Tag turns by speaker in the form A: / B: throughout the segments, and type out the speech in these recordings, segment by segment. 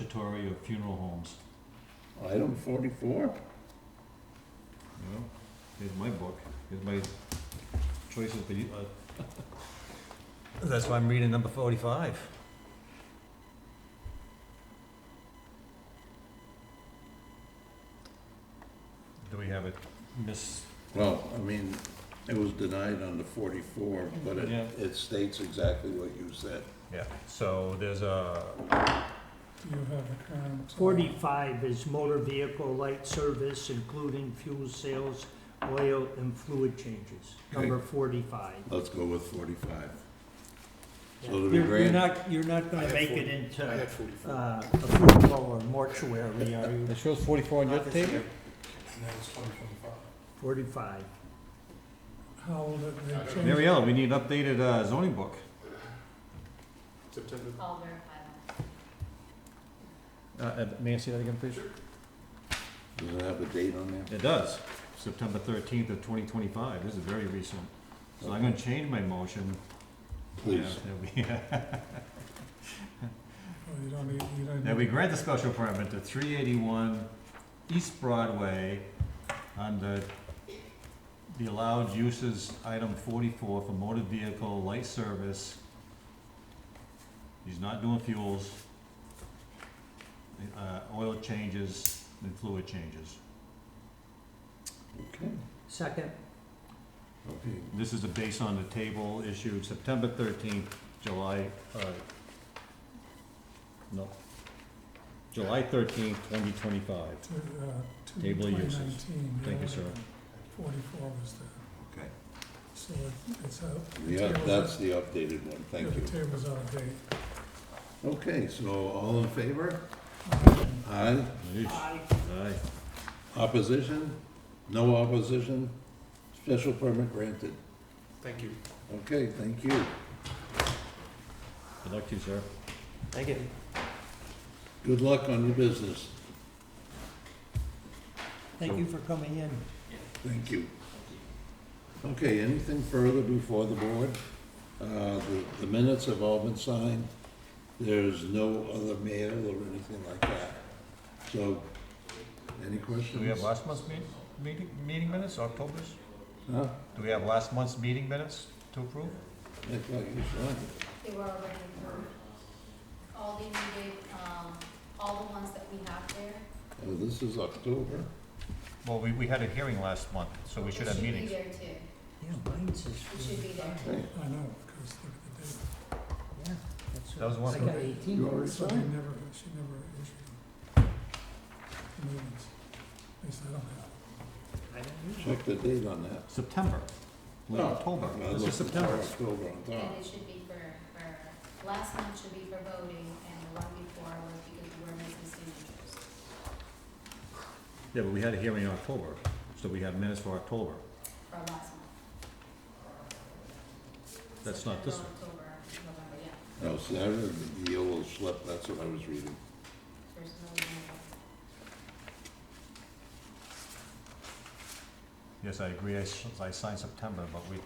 A: mortuary or funeral homes.
B: Item forty-four?
A: Well, here's my book, here's my choices for you. uh,
C: That's why I'm reading number forty-five.
A: Do we have it? Miss,
B: Well, I mean, it was denied under forty-four, but it,
A: Yeah.
B: it states exactly what you said.
C: Yeah, so there's a,
D: You have a current. uh,
E: Forty-five is motor vehicle light service, including fuel sales, oil and fluid changes, number forty-five.
B: Let's go with forty-five. So it'll be
E: You're, you're
B: grand.
E: not, you're not
F: I
E: gonna
F: had
E: make
F: forty-
E: it into,
F: I
E: uh,
F: had forty-four.
E: a funeral or mortuary, are you?
A: it shows forty-four on your
E: Not this
A: table?
E: year.
F: And that was twenty twenty-five.
E: Forty-five.
D: How old
F: I
D: it
F: don't
D: they
F: know.
D: changed?
A: Mariella, we need an updated uh, zoning book.
F: September.
G: I'll verify that.
A: Uh, Uh, may I see that again, please?
B: Does it have a date on there?
A: It does, September thirteenth of twenty twenty-five, this is very recent. So I'm gonna change my motion.
B: Please.
A: Yeah,
D: Oh, You don't need, you don't need.
A: That we grant the special permit to three eighty-one East Broadway under the allowed uses, item forty-four for motor vehicle light service. He's not doing fuels, uh, oil changes and fluid changes.
B: Okay,
E: Second,
B: okay.
A: This is a base on the table issued September thirteenth, July, uh, no, July thirteenth, twenty twenty-five.
D: to, uh, to
A: Table of uses.
D: 2019,
A: Thank you,
D: yeah,
A: sir.
D: Forty-four was the,
B: Okay.
D: so it- it's out.
B: Yeah,
D: table's
B: that's
D: out-
B: the updated one,
D: yeah,
B: thank you.
D: The table's out of date.
B: Okay, so all in favor?
D: Um,
B: Aye.
E: I,
A: Aye.
B: Opposition? No opposition? Special permit granted.
F: Thank you.
B: Okay, thank you.
A: Good luck to you, sir.
C: thank you.
B: Good luck on your business.
E: thank you for coming in.
B: Thank you. Okay, anything further before the board? Uh, The the minutes have all been signed. There's no other mail or anything like that. So, any questions?
C: Do we have last month's meet, meeting, meeting minutes, October's?
B: Huh?
C: Do we have last month's meeting minutes to approve?
B: I thought you signed it.
G: They were already approved. All they needed, um, all the ones that we have there.
B: Oh, this is October.
C: Well, we, we had a hearing last month, so we should have meetings.
G: It should be there too.
E: Yeah, mine's is.
G: It should be there.
B: Hey,
D: I know, because look at the date.
E: Yeah, that's.
C: That was one
E: I
C: of
E: got
C: the-
E: eighteen.
B: You already
D: So
B: signed
D: they
B: it.
D: never, she never issued them. The new ones. At least I don't have.
E: I don't know.
B: Check the date on that.
A: September, late
B: Oh,
A: October,
B: I
A: this
B: looked
A: is
B: for
A: September.
B: October on
G: And
B: top.
G: it should be for, for, last month should be for voting and the one before was because we were missing signatures.
A: Yeah, but we had a hearing in October, so we have minutes for October.
G: for last month.
A: That's not this
G: September, October, November, yeah.
B: No, see, I read the yellow slip, that's what I was reading.
G: There's no email.
C: Yes, I agree, I, s- I signed September, but we,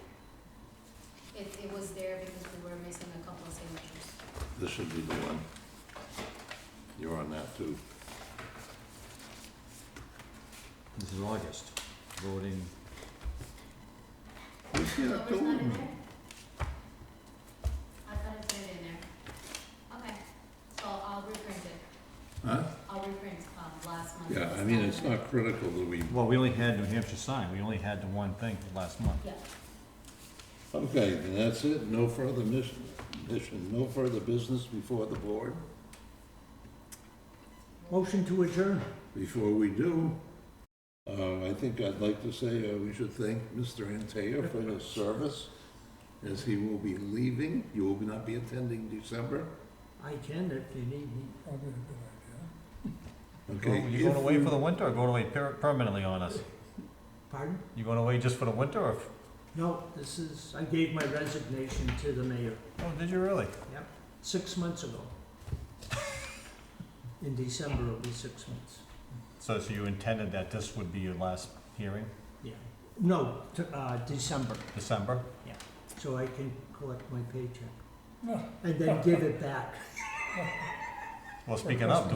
G: It, it was there because we were missing a couple of signatures.
B: This should be the one. You're on that too.
A: This is August, voting,
B: Where's the
G: October's not in
B: October?
G: there? I thought it said in there. Okay, so I'll reprint it.
B: Huh?
G: I'll reprint, um, last month.
B: Yeah, I mean, it's not critical that we,
A: well, we only had New Hampshire sign, we only had the one thing last month.
G: Yeah,
B: okay, then that's it, no further mission, mission, no further business before the board.
E: Motion to adjourn.
B: Before we do, uh, I think I'd like to say, uh, we should thank Mr. Antaya for his service, as he will be leaving, you will not be attending December.
E: I can if you need me.
D: Probably a good idea.
C: go-
B: Okay,
C: you going
B: if
C: away
B: we-
C: for the winter or going away per- permanently on us?
E: Pardon?
C: You going away just for the winter or, f-
E: No, this is, I gave my resignation to the mayor.
C: oh, did you really?
E: six months ago. In December, it'll be six months,
C: So, so you intended that this would be your last hearing,
E: yeah. No, t- uh, December,
C: December?
E: so I can collect my paycheck.
D: No.
E: And then give it back.
C: Well, speaking of, do